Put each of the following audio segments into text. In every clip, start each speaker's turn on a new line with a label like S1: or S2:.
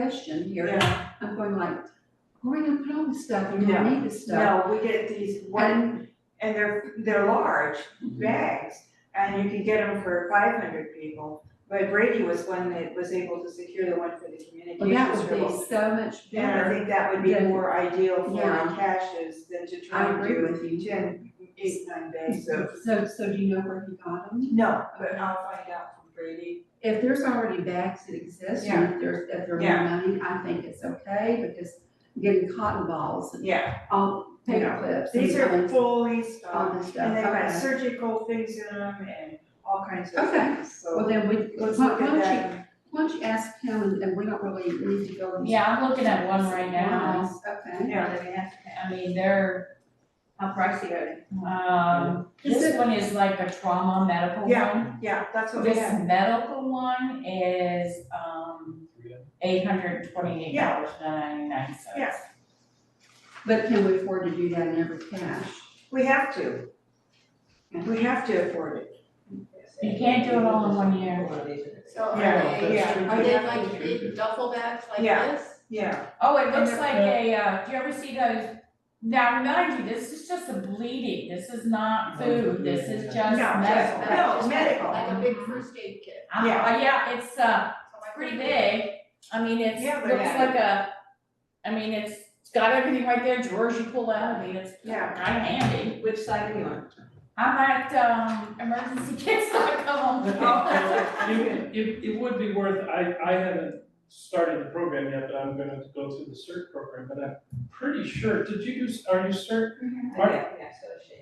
S1: question here,
S2: Yeah,
S1: I'm going like, where are we gonna put all this stuff, you
S2: Yeah.
S1: don't need this stuff.
S2: no, we get these one, and they're, they're large
S1: Mm-hmm.
S2: bags, and you can get them for five hundred people. But Brady was one that was able to secure the one for the
S1: Well, that would
S2: communications room.
S1: be so much
S2: And I
S1: better,
S2: think that would be
S1: Then-
S2: more ideal for
S1: Yeah.
S2: caches than to
S1: I
S2: try and
S1: agree
S2: do
S1: with you.
S2: ten, eight, nine days, so.
S1: So, so do you know where he got them?
S2: No, but I'll find out from Brady.
S1: If there's already bags that exist, and if there's, if they're
S2: Yeah.
S1: running, I think it's okay, because getting cotton balls and
S2: Yeah,
S1: all paper
S2: Yeah.
S1: clips. and
S2: these are
S1: things,
S2: fully
S1: All
S2: stocked,
S1: this stuff,
S2: and they've got
S1: okay.
S2: surgical things in them and all kinds of
S1: Okay.
S2: things,
S1: Well,
S2: so.
S1: then we, why
S2: Let's look
S1: why
S2: at
S1: don't you,
S2: that.
S1: why don't you ask him, and- and we don't really need to go. into-
S3: Yeah, I'm looking at one right now,
S1: Okay.
S2: Yeah.
S3: that we have to- I mean, they're,
S4: How pricey are they?
S3: um, this one is like a trauma medical one.
S2: Yeah, Yeah, that's what we
S3: This
S2: have.
S3: medical one is, um, eight hundred and twenty-eight dollars and ninety-nine cents.
S2: Yeah.
S1: But can we afford to do that in every cash?
S2: We have to. We have to afford it.
S3: You can't do it all in one year.
S4: So are
S2: Yeah,
S4: they,
S2: yeah.
S4: are they like big duffel bags like
S2: Yeah.
S4: this?
S2: Yeah,
S3: Oh, it looks
S2: And
S3: like a, uh, do you ever see those? Now, remind you, this is just a bleeding, this is not food, this is
S2: no,
S3: just
S2: just,
S3: medical.
S2: no, medical.
S4: Like a big first aid kit.
S3: Uh, yeah, it's, uh,
S4: So my
S3: It's pretty
S4: friend-
S3: big, I mean, it's,
S2: Yeah, but
S3: looks
S2: yeah.
S3: like a, I mean, it's it's got everything right there, drawers you pull out, I mean, it's kind
S2: Yeah.
S3: of handy.
S2: Which side are you on?
S3: I'm at, um, emergency kits, I come home.
S5: It, it, it would be worth, I, I haven't started the program yet, but I'm gonna go through the CERT program, but I'm pretty sure, did you use, are you CERT? Are-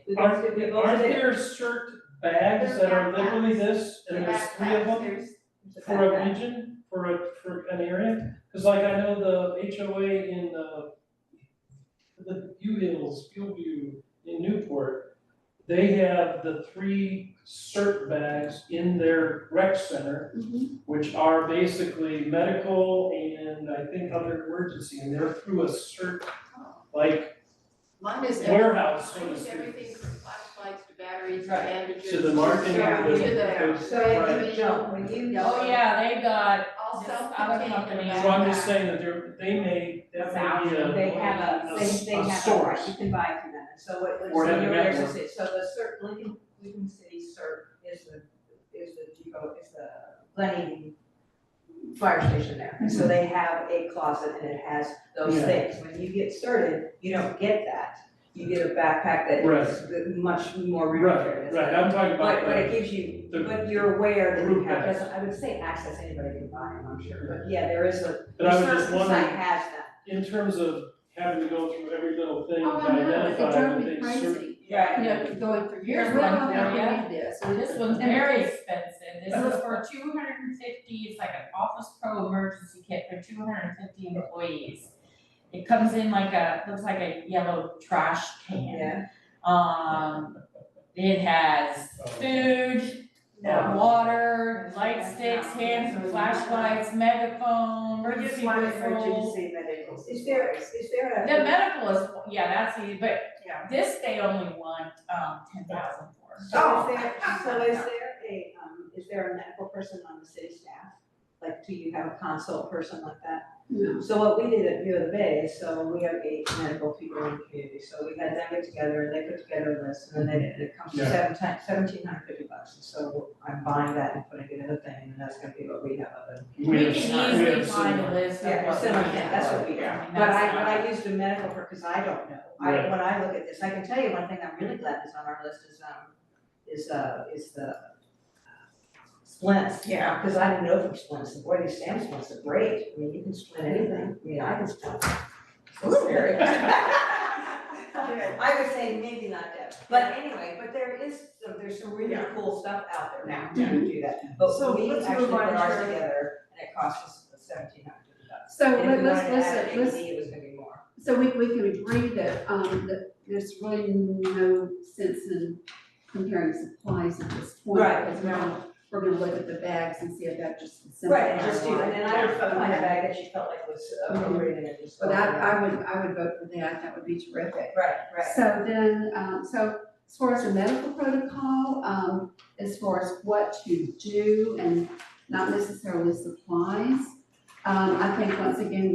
S6: We
S5: Are,
S6: both did, we both
S5: aren't
S6: did.
S5: there CERT bags that are literally this, and there's three of them
S4: There's-
S6: It's
S5: for a region, for a, for an area? Cause like I know the HOA in the, the U Hills, View in Newport, they have the three CERT bags in their rec center which are basically medical and I think other emergency, and they're through a certain,
S4: oh,
S5: like,
S4: Mine is every-
S5: warehouse, so
S4: mine
S5: to
S4: is everything
S5: speak.
S4: from flashlights to batteries to
S3: Right.
S4: bandages.
S5: So the marketing,
S4: Yeah,
S5: the-
S4: to the-
S5: the-
S6: So if
S5: Right.
S6: you jump, when you
S3: Oh,
S6: yell,
S3: yeah, they got,
S4: All
S3: This other
S4: self-contained in
S3: company-
S4: a
S5: So I'm just
S4: backpack.
S5: saying that they're, they may, that may be a.
S6: they have a, they, they
S5: a
S6: have a,
S5: source.
S6: right, you can buy it from them, so what, what,
S5: Or
S6: so
S5: have a
S6: yours
S5: network.
S6: is it, so the cert, Lincoln, Lincoln City cert is the, is the depot, is the Lenny fire station there, and so they have a closet and it has those
S5: Mm-hmm. Yeah.
S6: things, when you get started, you don't get that. You get a backpack that is much more
S5: Right,
S6: rudimentary,
S5: right, I'm talking
S6: But,
S5: about
S6: but
S5: the,
S6: it gives you,
S5: the-
S6: but you're aware that you
S5: Group
S6: have,
S5: bags.
S6: I would say access, anybody can buy them, I'm sure, but yeah, there is a,
S5: but I was just
S6: certain site
S5: wondering,
S6: has that.
S5: in terms of having to go through every little thing to
S1: Oh, I know, it
S5: identify, I
S1: drove
S5: would
S1: me
S5: think
S1: crazy.
S5: certain.
S1: you know, going for years,
S3: Here's
S1: well,
S3: one
S1: I
S3: for
S1: don't
S3: you.
S1: need this.
S3: this one's very expensive, this is for two hundred and fifty, it's like an Office Pro emergency kit for two hundred and fifty employees. It comes in like a, looks like a yellow trash can.
S6: Yeah.
S3: Um, it has food,
S6: No.
S3: water, light sticks, hands, flashlights, megaphone,
S6: We're just
S3: emergency
S6: wanting
S3: whistle.
S6: emergency medicals. Is there, is there
S3: The
S6: a?
S3: medical is, yeah, that's easy, but
S6: Yeah.
S3: this they only want, um, ten thousand for.
S6: So is there, so is there a, um, is there a medical person on the city staff? Like, do you have a consult person like that?
S1: No.
S6: So what we did at View of the Bay is, so we have eight medical people in the community, so we had them get together, and they put together a list, and then they, and it comes to
S5: Yeah.
S6: seven ti- seventeen hundred fifty bucks. And So I'm buying that and putting it in a thing, and that's gonna be what we have of it.
S3: We
S5: have-
S3: can
S5: we
S3: easily
S5: have
S3: find
S5: similar.
S3: a list of
S6: Yeah,
S3: what we
S6: similar,
S3: have.
S6: yeah, that's what we
S3: I
S6: have.
S3: mean,
S6: But I,
S3: that's
S6: but
S3: not-
S6: I used a medical for, cause I don't know, I,
S5: Right.
S6: when I look at this, I can tell you one thing I'm really glad is on our list is, um, is, uh, is the uh, splints,
S2: Yeah.
S6: cause I didn't know from splints, boy, these Sam splints are great, I mean, you can splint anything, I mean, I can splint. So scary. I would say maybe not that, but anyway, but there is, some- there's some really
S2: Yeah. Mm-hmm.
S6: cool stuff out there now to do that, but
S2: So
S6: we
S2: let's move
S6: actually put
S2: on to-
S6: ours together and it cost us seventeen hundred bucks.
S1: So
S6: And if
S1: let-
S6: we
S1: let's,
S6: wanted to add
S1: let's,
S6: an
S1: let's,
S6: AED, it was gonna be more.
S1: so we, we can agree that, um, that there's really no sense in comparing supplies at this point.
S6: Right.
S1: Because we're gonna, we're gonna look at the bags and see if that just
S6: Right, and just do,
S1: simplifies
S6: and
S1: life.
S6: then I would find a bag that she felt like was
S1: Mm-hmm.
S6: appropriate and just.
S1: But I, I would, I would vote for that, that would be terrific.
S6: Right, right.
S1: So then, um, so as far as the medical protocol, um, as far as what to do and not necessarily supplies, Um, I think once again,